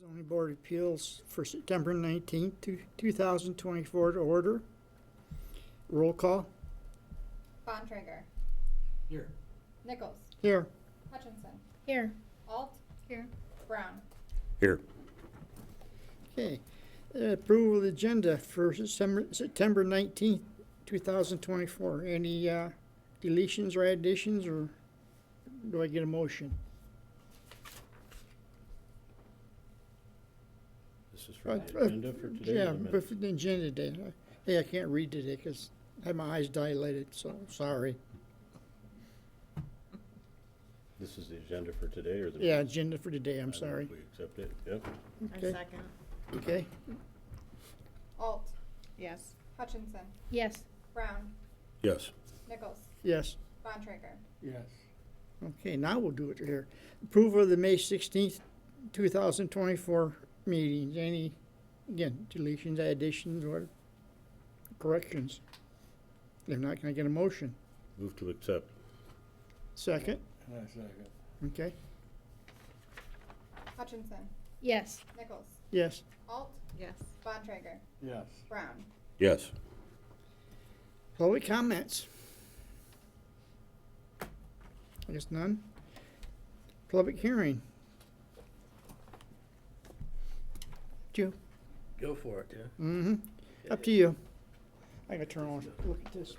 zoning board of appeals for September 19th, two- 2024 to order. Roll call. Bontrager. Here. Nichols. Here. Hutchinson. Here. Alt. Here. Brown. Here. Okay. Uh, Approval of the agenda for September September 19th, 2024. Any uh, deletions or additions, or do I get a motion? This is Uh, for the uh, agenda for today. or Yeah, the minutes? but for the agenda day. Hey, I can't read today because I had my eyes dilated, so sorry. This is the agenda for today or the? Yeah, minutes? agenda for today, I I'm move sorry. We accept it, yep. I Okay. second. Okay, Alt. Yes. Hutchinson. Yes. Brown. Yes. Nichols. yes. Bontrager. Yes. Okay, now we'll do it here. Approval of the May sixteenth, two thousand twenty-four meetings. Any, again, deletions, additions, or corrections? If not, can I get a motion? Move to accept. Second, I second. okay, Hutchinson. Yes. Nichols. yes. Alt. Yes. Bontrager. Yes. Brown. Yes. Public comments? I guess none. Public hearing? Two. Go for it, yeah. Mm-hmm, up to you. I gotta turn on, look at this.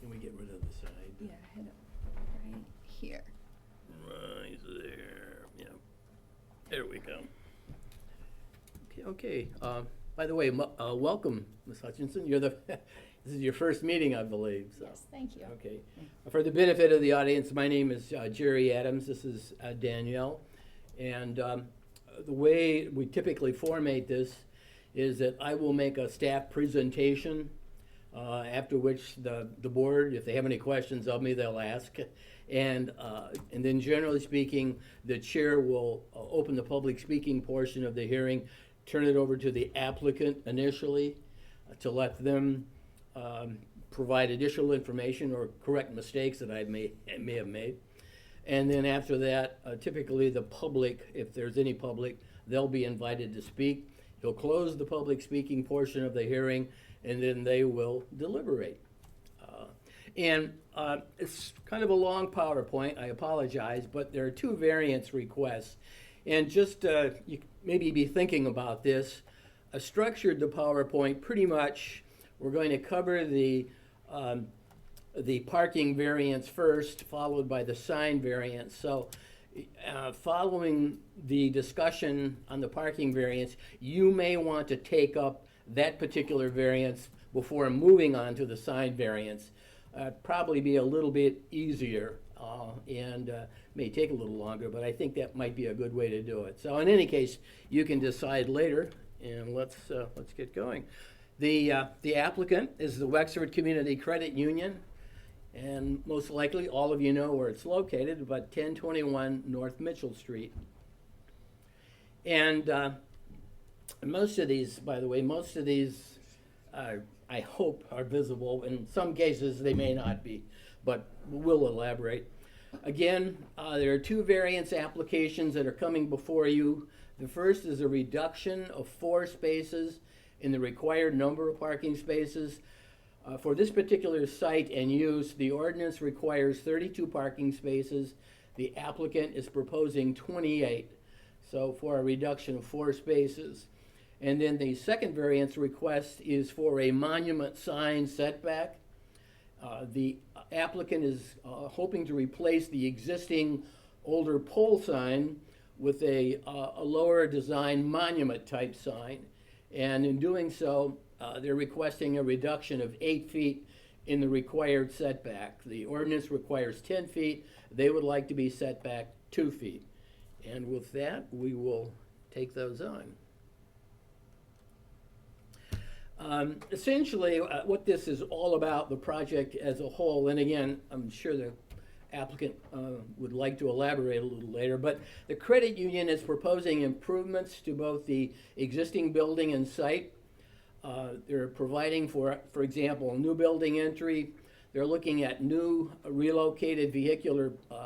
Can we get rid of the side? hit it right here. Right there, yeah. There we go. Okay, okay. Um, by the way, mu- uh, welcome, Ms. Hutchinson. You're the, this is your first meeting, I believe, so. Yes, thank you. Okay. For the benefit of the audience, my name is uh, Jerry Adams. This is uh, Danielle. And um, the way we typically formate this is that I will make a staff presentation, uh, after which the, the board, if they have any questions of me, they'll ask. And, uh, and then generally speaking, the chair will uh, open the public speaking portion of the hearing, turn it over to the applicant initially uh, to let them um, provide additional information or correct mistakes that I may, may have made. And then after that, uh, typically the public, if there's any public, they'll be invited to speak. He'll close the public speaking portion of the hearing, and then they will deliberate. Uh, And uh, it's kind of a long PowerPoint, I apologize, but there are two variance requests. And just, uh, you maybe be thinking about this, I structured the PowerPoint pretty much, we're going to cover the, um, the parking variance first, followed by the sign variance. So, uh, following the discussion on the parking variance, you may want to take up that particular variance before moving on to the sign variance. Uh, probably be a little bit easier, uh, and, uh, may take a little longer, but I think that might be a good way to do it. So in any case, you can decide later, and let's, uh, let's get going. The, uh, the applicant is the Wexford Community Credit Union, and most likely, all of you know where it's located, but 1021 North Mitchell Street. And uh, most of these, by the way, most of these, uh, I hope, are visible. In some cases, they may not be, but we'll elaborate. Again, uh, there are two variance applications that are coming before you. The first is a reduction of four spaces in the required number of parking spaces. Uh, For this particular site and use, the ordinance requires 32 parking spaces. The applicant is proposing 28, so for a reduction of four spaces. And then the second variance request is for a monument sign setback. Uh, The applicant is uh, hoping to replace the existing older pole sign with a, uh, a lower design monument-type sign. And in doing so, uh, they're requesting a reduction of eight feet in the required setback. The ordinance requires 10 feet. They would like to be set back two feet. And with that, we will take those on. Um, Essentially, uh, what this is all about, the project as a whole, and again, I'm sure the applicant uh, would like to elaborate a little later, but the credit union is proposing improvements to both the existing building and site. Uh, They're providing for, for example, new building entry. They're looking at new relocated vehicular uh,